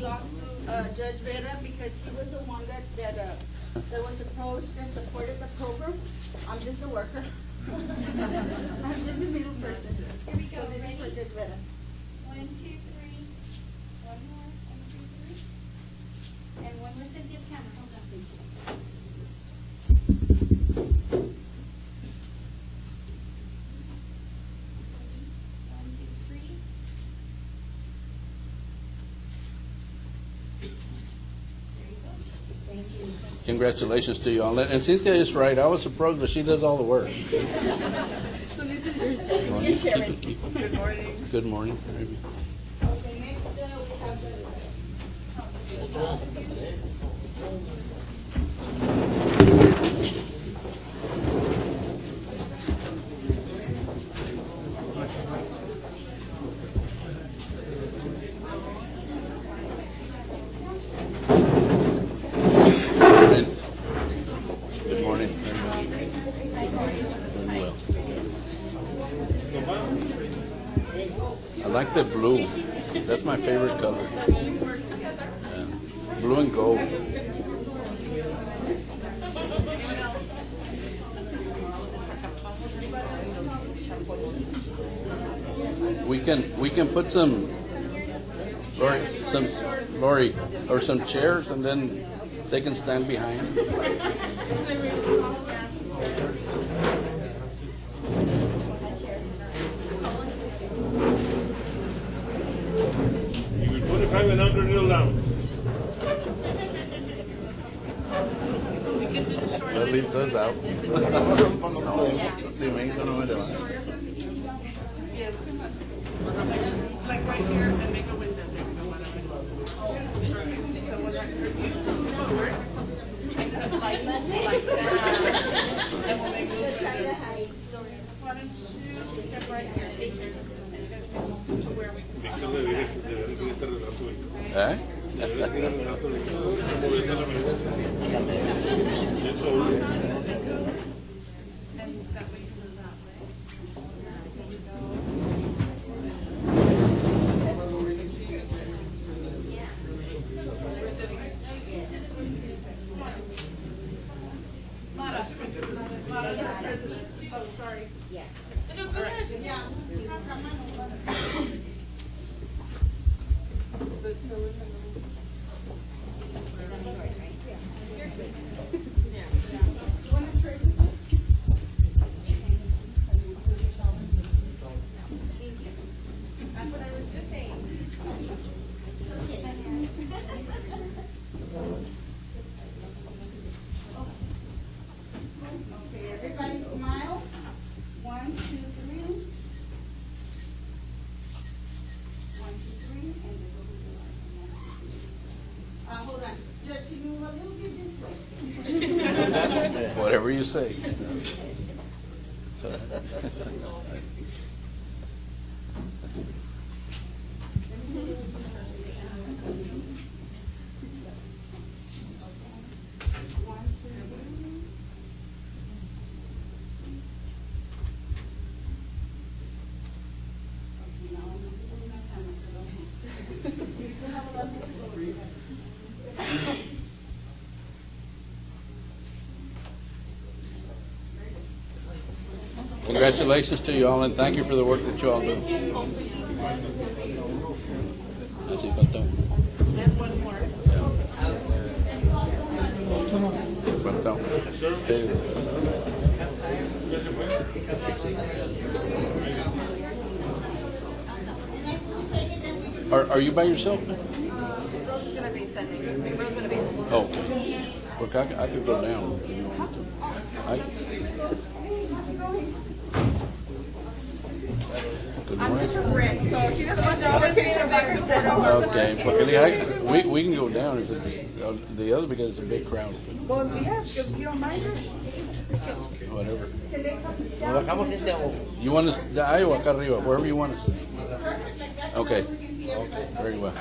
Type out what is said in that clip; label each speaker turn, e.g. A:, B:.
A: law school, uh, Judge Vera, because he was the one that, that, uh, that was approached and supported the program. I'm just a worker. I'm just a middle person.
B: Here we go.
A: So this is for
B: Ready?
A: Judge Vera.
B: One, two, three. One more, one, two, three. And one more Cynthia's camera, hold on. One, two, three. There you go. Thank you.
C: Congratulations to you on that. And Cynthia is right. I was surprised, but she does all the work.
A: So this is yours, Judge. Here's Sharon. Good morning.
C: Good morning.
A: Okay, next, uh, we have Judge Vera.
C: Good morning. Doing well. I like the blue. That's my favorite color. Yeah. Blue and gold. We can we can put some Lori some Lori or some chairs and then they can stand behind.
D: You can put a five and under, kneel down.
C: That leaves us out.
E: Yes, come on. Like, like right here and make a window. There we go. One of them. Someone like her, you come forward. And put like, like that. And we'll make a window. Why don't you step right here? And you guys can to where we can see.
D: Víctor le dije que debería de estar del azul.
C: ¿Eh?
D: Deberías ir al gato de como ves a la mejor. Eso,
E: And that way you can move that way.
A: Okay, everybody smile. One, two, three. One, two, three, and then go to the right. Uh, hold on, Judge, can you move a little bit this way?
C: Whatever you say.
A: One, two, three. Okay, now I'm gonna move my camera, so don't. You still have a lot to go.
C: Congratulations to you all and thank you for the work that you all do. Así falta uno.
E: And one more.
C: Falta uno. Sí.
D: ya se fue.
C: Are, are you by yourself?
E: Rose is gonna be standing. Rose gonna be.
C: Oh, okay. Look, I, c- I could go down. if you want to. I- Good
E: I'm
C: morning.
E: just her friend, so she doesn't want to always be her by herself.
C: Okay, porque le- I- we, we can go down if it's, uh, the other because it's a big crowd,
E: Well, yeah, if you don't mind her.
C: whatever.
F: Nos bajamos gente a ojo.
C: You want us, de ahí o acá arriba, wherever you want us.
A: Perfect, like that, so
C: Okay.
A: we can see everybody.
C: Very well.